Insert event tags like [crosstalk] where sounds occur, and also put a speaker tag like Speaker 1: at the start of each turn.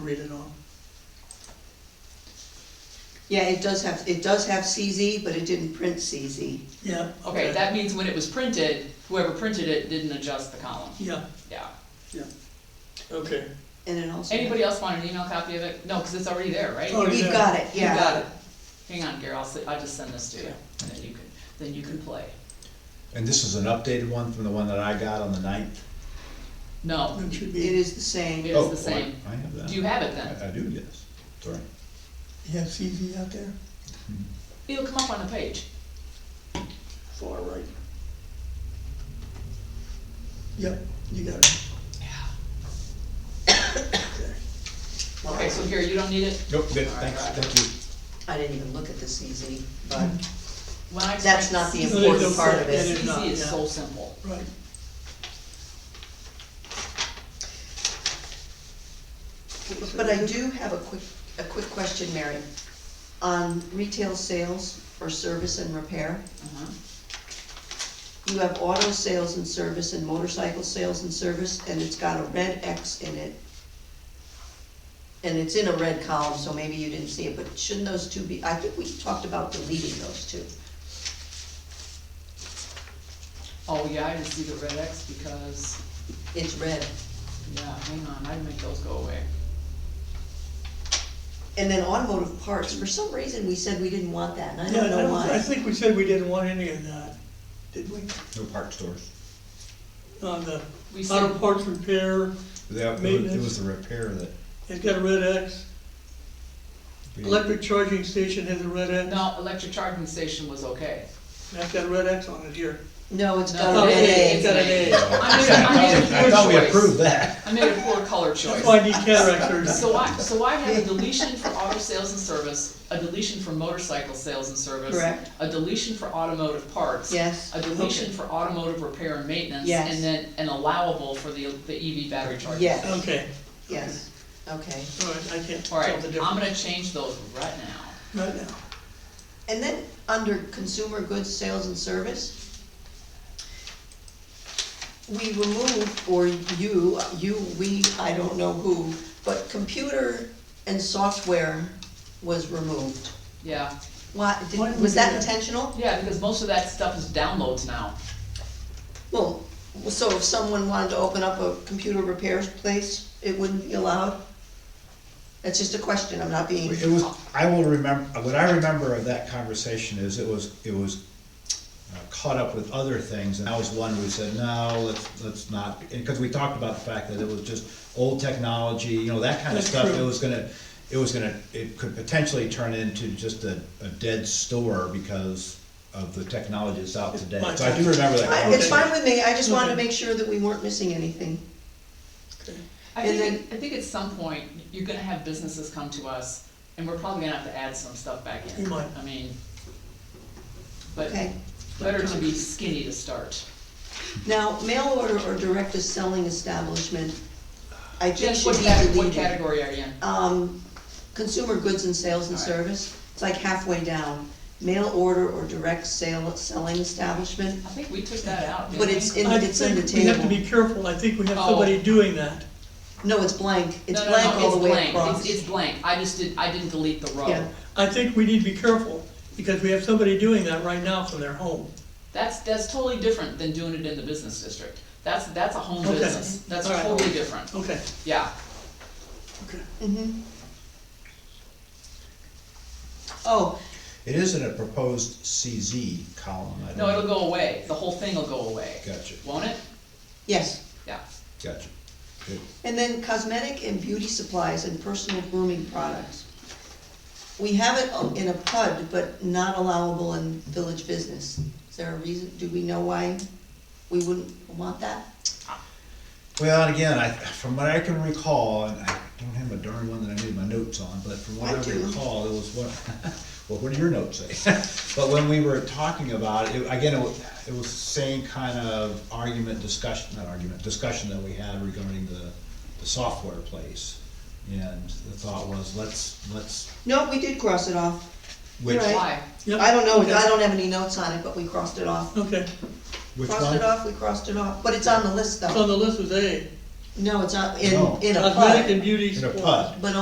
Speaker 1: read it all. Yeah, it does have, it does have CZ, but it didn't print CZ.
Speaker 2: yeah,
Speaker 3: Okay, that means when it was printed, whoever printed it didn't adjust the column,
Speaker 2: Yeah,
Speaker 3: yeah.
Speaker 2: okay.
Speaker 1: And it also.
Speaker 3: Anybody else want an email copy of it? No, because it's already there, right?
Speaker 2: Oh,
Speaker 1: We've
Speaker 2: yeah.
Speaker 1: got it,
Speaker 3: You
Speaker 1: yeah.
Speaker 3: got it. Hang on, Gary, I'll, s- I'll just send this to you, and then you can, then you can play.
Speaker 4: And this is an updated one from the one that I got on the ninth? Oh,
Speaker 3: No,
Speaker 2: That should
Speaker 1: It
Speaker 2: be,
Speaker 1: is the
Speaker 3: it
Speaker 1: same.
Speaker 3: is the same.
Speaker 4: I have that.
Speaker 3: Do you have it then?
Speaker 4: I, I do, yes, sorry.
Speaker 2: you have CZ out there?
Speaker 3: It'll come up on the page.
Speaker 2: Far right. Yep, you got it, okay.
Speaker 3: Okay, so here, you don't need it?
Speaker 4: Nope, good, thanks, thank you.
Speaker 1: I didn't even look at the CZ, but
Speaker 3: When I explain-
Speaker 1: that's not the
Speaker 2: No,
Speaker 1: important
Speaker 2: it's
Speaker 1: part of
Speaker 2: important.
Speaker 1: it.
Speaker 2: It is not,
Speaker 3: CC is
Speaker 2: yeah.
Speaker 3: so simple.
Speaker 2: Right,
Speaker 3: Mm-hmm.
Speaker 1: But I do have a quick, a quick question, Mary. On retail sales for service and repair,
Speaker 3: Uh-huh.
Speaker 1: you have auto sales and service and motorcycle sales and service, and it's got a red X in it. And it's in a red column, so maybe you didn't see it, but shouldn't those two be, I think we talked about deleting those two.
Speaker 3: Oh, yeah, I didn't see the red X because,
Speaker 1: It's red.
Speaker 3: yeah, hang on, I'd make those go away.
Speaker 1: And then automotive parts, for some reason, we said we didn't want that, and I
Speaker 2: yeah,
Speaker 1: don't
Speaker 2: I
Speaker 1: know
Speaker 2: don't- I
Speaker 1: why.
Speaker 2: think we said we didn't want any of that, did we?
Speaker 4: No park stores.
Speaker 2: On the
Speaker 3: We
Speaker 2: auto
Speaker 3: said,
Speaker 2: parts repair,
Speaker 4: That, it was the repair that
Speaker 2: it's got a red X,
Speaker 4: we. [laughs]
Speaker 2: electric charging station has a red X,
Speaker 3: no, electric charging station was okay.
Speaker 2: that's got a red X on it here.
Speaker 1: No, it's
Speaker 3: No,
Speaker 1: got a
Speaker 3: it
Speaker 1: red
Speaker 2: It's
Speaker 3: is.
Speaker 1: A.
Speaker 2: got an A.
Speaker 3: I made, a- I made a poor
Speaker 4: I
Speaker 3: choice.
Speaker 4: thought we approved that.
Speaker 3: I made a poor color choice.
Speaker 2: That's why I need cataract surgery.
Speaker 3: So I, so I have a deletion for auto sales and service, a deletion for motorcycle sales and service.
Speaker 1: Correct.
Speaker 3: A deletion for automotive parts.
Speaker 1: Yes.
Speaker 3: A deletion for automotive repair and maintenance.
Speaker 1: Yes.
Speaker 3: And then an allowable for the, the EV battery charging.
Speaker 1: Yes.
Speaker 2: Okay,
Speaker 1: Yes, okay.
Speaker 2: all right, I can't tell
Speaker 3: Alright,
Speaker 2: the
Speaker 3: I'm
Speaker 2: difference
Speaker 3: gonna change those right now.
Speaker 2: right now.
Speaker 1: And then, under consumer goods, sales and service, we removed, or you, you, we, I don't know who, but computer and software was removed.
Speaker 3: Yeah,
Speaker 1: Why, did-
Speaker 2: Why did we
Speaker 1: was
Speaker 2: do
Speaker 1: that
Speaker 2: that?
Speaker 1: intentional?
Speaker 3: yeah, because most of that stuff is downloads now.
Speaker 1: Well, so if someone wanted to open up a computer repair place, it wouldn't be allowed? That's just a question, I'm not being,
Speaker 4: It was, I will remember, what I remember of that conversation is it was, it was uh, caught up with other things, and that was one we said, no, let's, let's not, and, cause we talked about the fact that it was just old technology, you know, that kinda
Speaker 2: That's
Speaker 4: stuff, it
Speaker 2: true.
Speaker 4: was gonna, it was gonna, it could potentially turn into just a, a dead store because of the technology that's out today, so I do remember that.
Speaker 1: I- it's
Speaker 4: conversation.
Speaker 1: fine with me, I just wanted to
Speaker 2: Okay.
Speaker 1: make sure that we weren't missing anything.
Speaker 3: I
Speaker 1: And
Speaker 3: think, I think at some point, you're gonna have businesses come to us, and we're probably gonna have to add some stuff back in.
Speaker 2: We might.
Speaker 3: I mean, but
Speaker 1: Okay.
Speaker 3: better to be skinny to start.
Speaker 1: Now, mail order or direct to selling establishment, I think
Speaker 3: Jess, what
Speaker 1: should be
Speaker 3: cat- what
Speaker 1: deleted.
Speaker 3: category are you in?
Speaker 1: Um, consumer goods and sales and
Speaker 3: All right.
Speaker 1: service, it's like halfway down. Mail order or direct sale, selling establishment,
Speaker 3: I think we took that out, didn't
Speaker 1: But
Speaker 3: we?
Speaker 1: it's in-
Speaker 2: I
Speaker 1: it's in the
Speaker 2: think We have to
Speaker 1: table.
Speaker 2: be careful, I think we have
Speaker 3: Oh.
Speaker 2: somebody doing that.
Speaker 1: no, it's blank, it's
Speaker 3: No, no,
Speaker 1: blank
Speaker 3: no,
Speaker 1: all the way
Speaker 3: blank.
Speaker 1: across.
Speaker 3: It's, it's blank, I just did, I didn't delete the row.
Speaker 1: Yeah.
Speaker 2: I think we need to be careful, because we have somebody doing that right now from their home.
Speaker 3: That's, that's totally different than doing it in the business district. That's, that's a home
Speaker 2: Okay.
Speaker 3: business, that's
Speaker 2: All right.
Speaker 3: totally different,
Speaker 2: Okay,
Speaker 3: yeah.
Speaker 2: okay.
Speaker 1: Mhm. Oh,
Speaker 4: It is in a proposed CZ column, I don't.
Speaker 3: No, it'll go away, the whole thing will go away.
Speaker 4: Gotcha.
Speaker 3: Won't it?
Speaker 1: yes,
Speaker 3: Yeah.
Speaker 4: Gotcha, good.
Speaker 1: and then cosmetic and beauty supplies and personal grooming products. We have it in a PUD, but not allowable in village business. Is there a reason, do we know why we wouldn't want that?
Speaker 4: Well, and again, I, from what I can recall, and I don't have a darn one that I made my notes on, but from what
Speaker 1: I
Speaker 4: I
Speaker 1: do.
Speaker 4: recall, it was what, well, what [laughs] do your notes say? [laughs] But when we were talking about it, again, it was, it was the same kind of argument, discussion, not argument, discussion that we had regarding the, the software place. And the thought was, let's, let's,
Speaker 1: No, we did cross it off.
Speaker 4: which,
Speaker 1: Right.
Speaker 3: Why?
Speaker 2: Yep,
Speaker 1: I don't know,
Speaker 2: okay,
Speaker 1: I don't have any notes on it, but we crossed it off.
Speaker 2: Okay,
Speaker 4: which
Speaker 1: Crossed
Speaker 4: one?
Speaker 1: it off, we crossed it off, but it's on the list
Speaker 2: so
Speaker 1: though.
Speaker 2: the list was A,
Speaker 1: No, it's not, in,
Speaker 4: No.
Speaker 1: in a
Speaker 2: cosmetic and
Speaker 1: PUD,
Speaker 2: beauty
Speaker 4: In a
Speaker 2: supplies.
Speaker 4: PUD.
Speaker 1: but